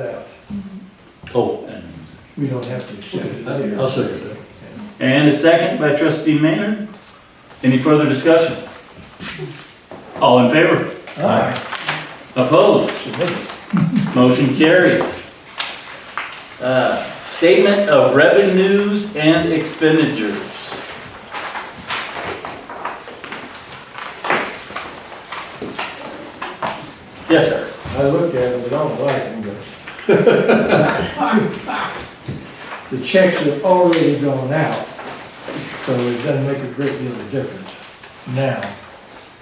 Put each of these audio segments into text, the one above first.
that. Oh, and We don't have to accept it here. I'll second that. And a second by trustee Maynard. Any further discussion? All in favor? Aye. Opposed? Motion carries. Uh, Statement of revenues and expenditures. Yes, sir. I looked at them, but I don't like them, but. The checks have already gone out, so it doesn't make a great deal of difference now.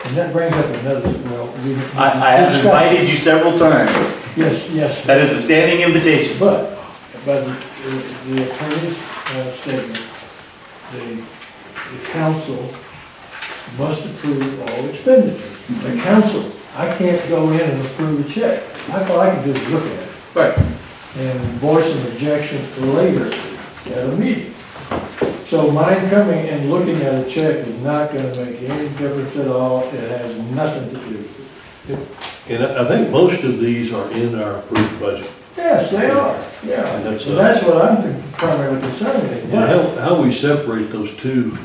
And that brings up another, well, we. I, I have invited you several times. Yes, yes. That is a standing invitation. But, but the the attorney's uh, statement, the, the council must approve all expenditures. The council, I can't go in and approve a check. I, all I can do is look at it Right. and voice an objection later at a meeting. So mine coming and looking at a check is not gonna make any difference at all. It has nothing to do. And I I think most of these are in our approved budget. Yes, they are, yeah. And that's, So uh, that's what I'm primarily concerned with. And how, how we separate those two,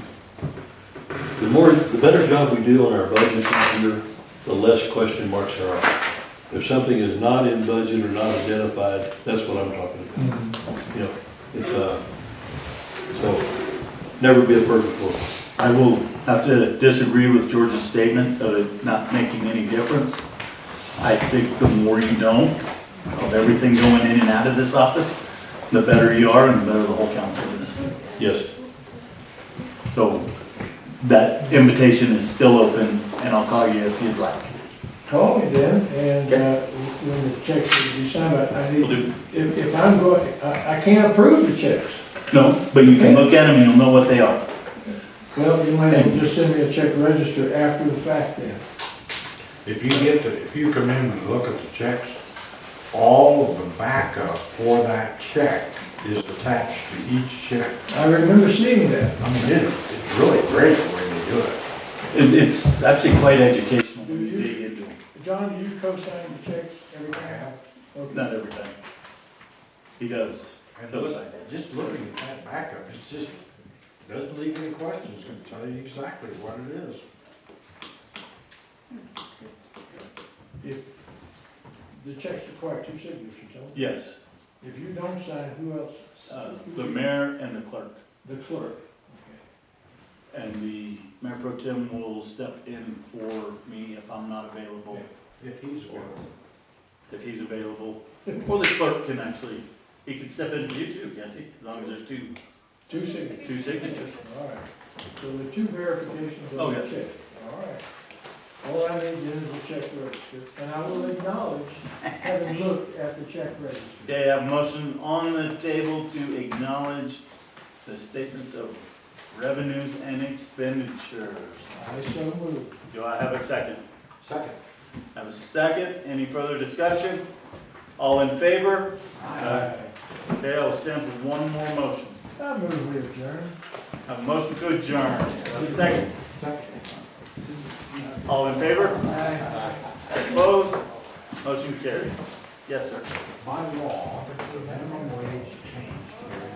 the more, the better job we do on our budgets each year, the less question marks there are. If something is not in budget or not identified, that's what I'm talking about, Mhm. you know, it's, uh, so, never be a perfect world. I will have to disagree with George's statement of it not making any difference. I think the more you know of everything going in and out of this office, the better you are and the better the whole council is. Yes, So that invitation is still open and I'll call you if you'd like. Call me then, and uh, when the checks are decided, I Will need, do. if, if I'm going, I, I can't approve the checks. No, but you can look at them and you'll know what they are. Well, you might as well just send me a check register after the fact then. If you get the, if you come in and look at the checks, all of the backup for that check is attached to each check. I remember seeing that. I mean, it, it's really great when you do it. It, it's actually quite educational when you dig into them. John, do you co-sign the checks every time? Okay. Not every time. He does. And look- Just looking at that backup, it's just, doesn't leave any questions, It's gonna tell you exactly what it is. The checks require two signatures, don't Yes, they? If you don't sign, who else? uh, the mayor and the clerk. The clerk. And the mayor pro tem will step in for me if I'm not available, If he's one. if he's available. Or the clerk can actually, he can step in for you too, can't he? As long as there's two, Two signatures. two signatures. All right. So the two verifications Oh, of the yes. check. All right. All I need then is a check register, and I will acknowledge having looked at the check register. Okay, I have a motion on the table to acknowledge the statements of revenues and expenditures. I so move. Do I have a second? Second. Have a second? Any further discussion? All in favor? Okay, I will stand for one more motion. I move with adjourn. Have a motion to adjourn. Have a second? Second. All in favor? Aye. Opposed? Motion carried. Yes, sir. By law, the minimum wage changed here in